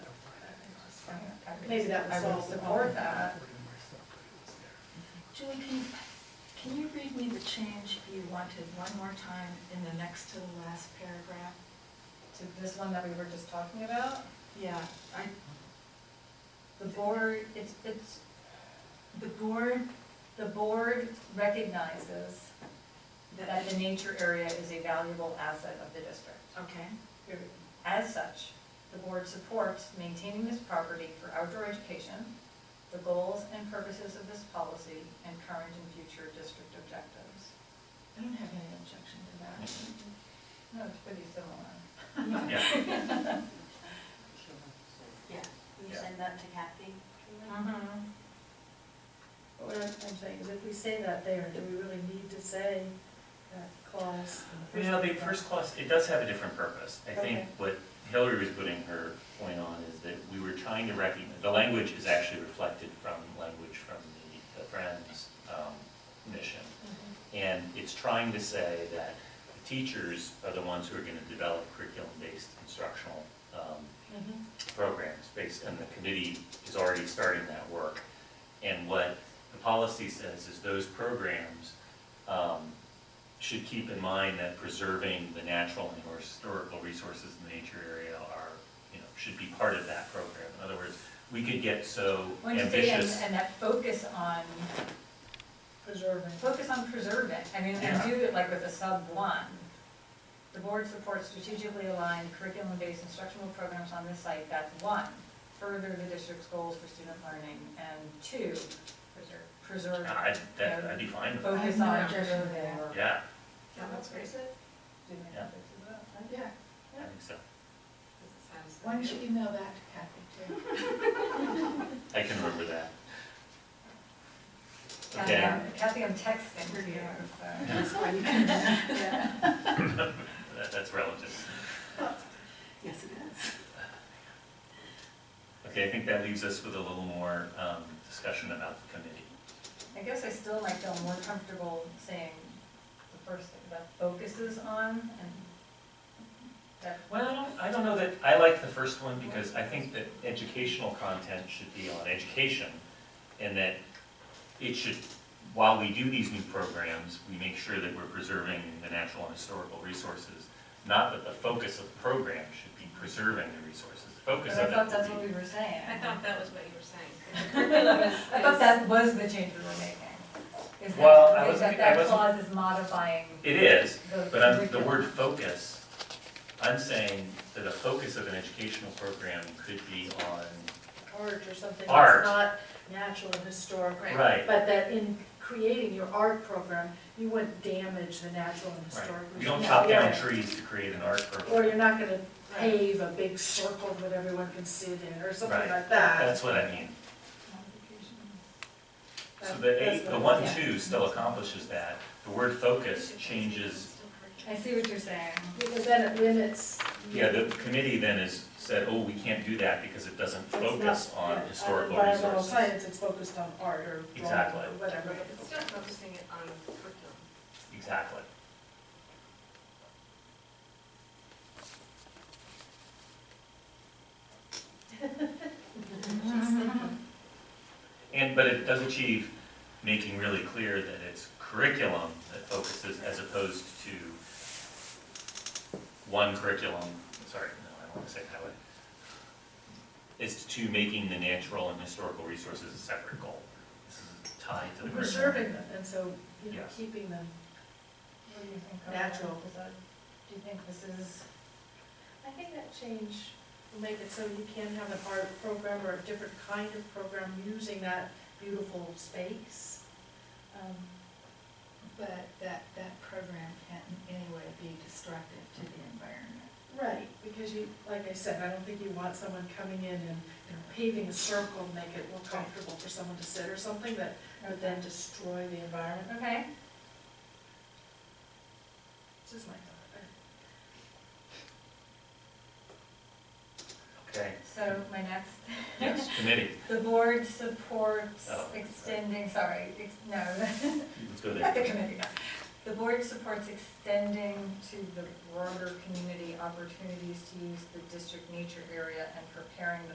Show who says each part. Speaker 1: Maybe that would
Speaker 2: I would
Speaker 1: solve the
Speaker 2: support
Speaker 1: problem.
Speaker 2: that.
Speaker 3: Julie, can, can you read me the change you wanted one more time in the next to the last paragraph?
Speaker 2: To this one that we were just talking about,
Speaker 3: Yeah, I,
Speaker 2: the board, it's, it's,
Speaker 3: the board,
Speaker 2: the board recognizes that the nature area is a valuable asset of the district.
Speaker 3: okay,
Speaker 2: Period. As such, the board supports maintaining this property for outdoor education, the goals and purposes of this policy, and current and future district objectives.
Speaker 3: I don't have any objection to
Speaker 2: No, it's pretty similar.
Speaker 3: that.
Speaker 4: Yeah,
Speaker 5: Yeah, will you
Speaker 4: Yeah.
Speaker 5: send that to Kathy?
Speaker 2: Mm-hmm.
Speaker 1: But What Oh, I'm I'm saying is if we say that there, do we really need to say that clause? in
Speaker 4: well, the
Speaker 1: paragraph?
Speaker 4: first clause, it does have a different purpose. I think
Speaker 1: Okay.
Speaker 4: what Hillary was putting her point on is that we were trying to recognize, the language is actually reflected from language from the- the Friends um, mission. And it's trying to say that the teachers are the ones who are going to develop curriculum-based instructional um,
Speaker 1: Mm-hmm.
Speaker 4: programs based, and the committee is already starting that work. And what the policy says is those programs um, should keep in mind that preserving the natural and or historical resources in the nature area are, you know, should be part of that program. In other words, we could get so
Speaker 2: When you say, and,
Speaker 4: ambitious.
Speaker 2: and that focus on,
Speaker 1: Preserving.
Speaker 2: focus on preserving, I mean,
Speaker 4: Yeah.
Speaker 2: and do it like with a sub one. The board supports strategically aligned curriculum-based instructional programs on this site, that's one. Further the district's goals for student learning, and two, preserve,
Speaker 4: I'd, that- I'd be fine with that.
Speaker 2: focus
Speaker 3: I have no
Speaker 2: on
Speaker 3: objection to
Speaker 2: preserving.
Speaker 3: that.
Speaker 2: or-
Speaker 4: Yeah,
Speaker 2: Yeah, that's great. Do they have to do that?
Speaker 3: Yeah.
Speaker 4: I think so.
Speaker 3: Why don't you email that to Kathy too?
Speaker 4: I can remember that.
Speaker 2: Kathy,
Speaker 4: Okay,
Speaker 2: I'm- Kathy, I'm texting you, so.
Speaker 4: that- that's relative.
Speaker 5: Yes, it is.
Speaker 4: Okay, I think that leaves us with a little more um, discussion about the committee.
Speaker 2: I guess I still might feel more comfortable saying the first thing, that focuses on, and that
Speaker 4: Well, I don't- I don't know that, I like the first one because I think that educational content should be on education and that it should, while we do these new programs, we make sure that we're preserving the natural and historical resources, not that the focus of the program should be preserving the resources. The
Speaker 2: But
Speaker 4: focus
Speaker 2: I
Speaker 4: of it
Speaker 2: thought that's
Speaker 4: will
Speaker 2: what
Speaker 4: be-
Speaker 2: we were saying.
Speaker 6: I thought that was what you were saying.
Speaker 2: I thought that was the change we were making. Is that-
Speaker 4: Well, I
Speaker 2: is
Speaker 4: wasn't-
Speaker 2: that that
Speaker 4: I wasn't-
Speaker 2: clause is modifying
Speaker 4: It is,
Speaker 2: the.
Speaker 4: But I'm, the
Speaker 2: curriculum.
Speaker 4: word focus, I'm saying that a focus of an educational program could be on,
Speaker 1: Art or something
Speaker 4: Art.
Speaker 1: that's not natural and historic.
Speaker 6: Right.
Speaker 4: right,
Speaker 1: But that in creating your art program, you wouldn't damage the natural and
Speaker 4: right.
Speaker 1: historic.
Speaker 4: You don't
Speaker 1: resources.
Speaker 4: chop down
Speaker 1: Yeah.
Speaker 4: trees to create an art
Speaker 1: Or
Speaker 4: program.
Speaker 1: you're not gonna pave a big circle that everyone can sit in, or something
Speaker 4: Right.
Speaker 1: like that.
Speaker 4: That's what I mean. So
Speaker 1: That-
Speaker 4: the
Speaker 1: that's
Speaker 4: eight, the
Speaker 1: what-
Speaker 4: one,
Speaker 1: yeah.
Speaker 4: two still accomplishes that. The word focus changes,
Speaker 2: I see what you're saying.
Speaker 1: Because then it limits.
Speaker 4: yeah, the committee then has said, oh, we can't do that because it doesn't
Speaker 1: It's not-
Speaker 4: focus
Speaker 1: yeah,
Speaker 4: on historical
Speaker 1: uh, Environmental
Speaker 4: resources.
Speaker 1: science, it's focused on art or drawing
Speaker 4: Exactly.
Speaker 1: or whatever.
Speaker 6: It's not focusing it on curriculum.
Speaker 4: Exactly. And, but it does achieve making really clear that it's curriculum that focuses as opposed to one curriculum, sorry, no, I don't want to say it that way. It's to making the natural and historical resources a separate goal. This is tied to the curriculum.
Speaker 1: Preserving them, and so, you know,
Speaker 4: Yes.
Speaker 1: keeping them.
Speaker 2: What do you think? Carla?
Speaker 1: Natural.
Speaker 2: Is that- Do you think this is,
Speaker 1: I think that change will make it so you can have an art program or a different kind of program using that beautiful space.
Speaker 3: Um, But that, that program can't in any way be destructive to the environment.
Speaker 1: Right, because you, like I said, I don't think you want someone coming in and you know, paving a circle, to make it more comfortable for someone to sit or something that would then destroy the environment.
Speaker 2: okay,
Speaker 1: This is my thought.
Speaker 4: Okay,
Speaker 2: so my next.
Speaker 4: yes, committee,
Speaker 2: The board supports
Speaker 4: Oh, sorry.
Speaker 2: extending, sorry, ex- no,
Speaker 4: let's go
Speaker 2: Not the
Speaker 4: there.
Speaker 2: committee, no. The board supports extending to the broader community opportunities to use the district nature area and preparing the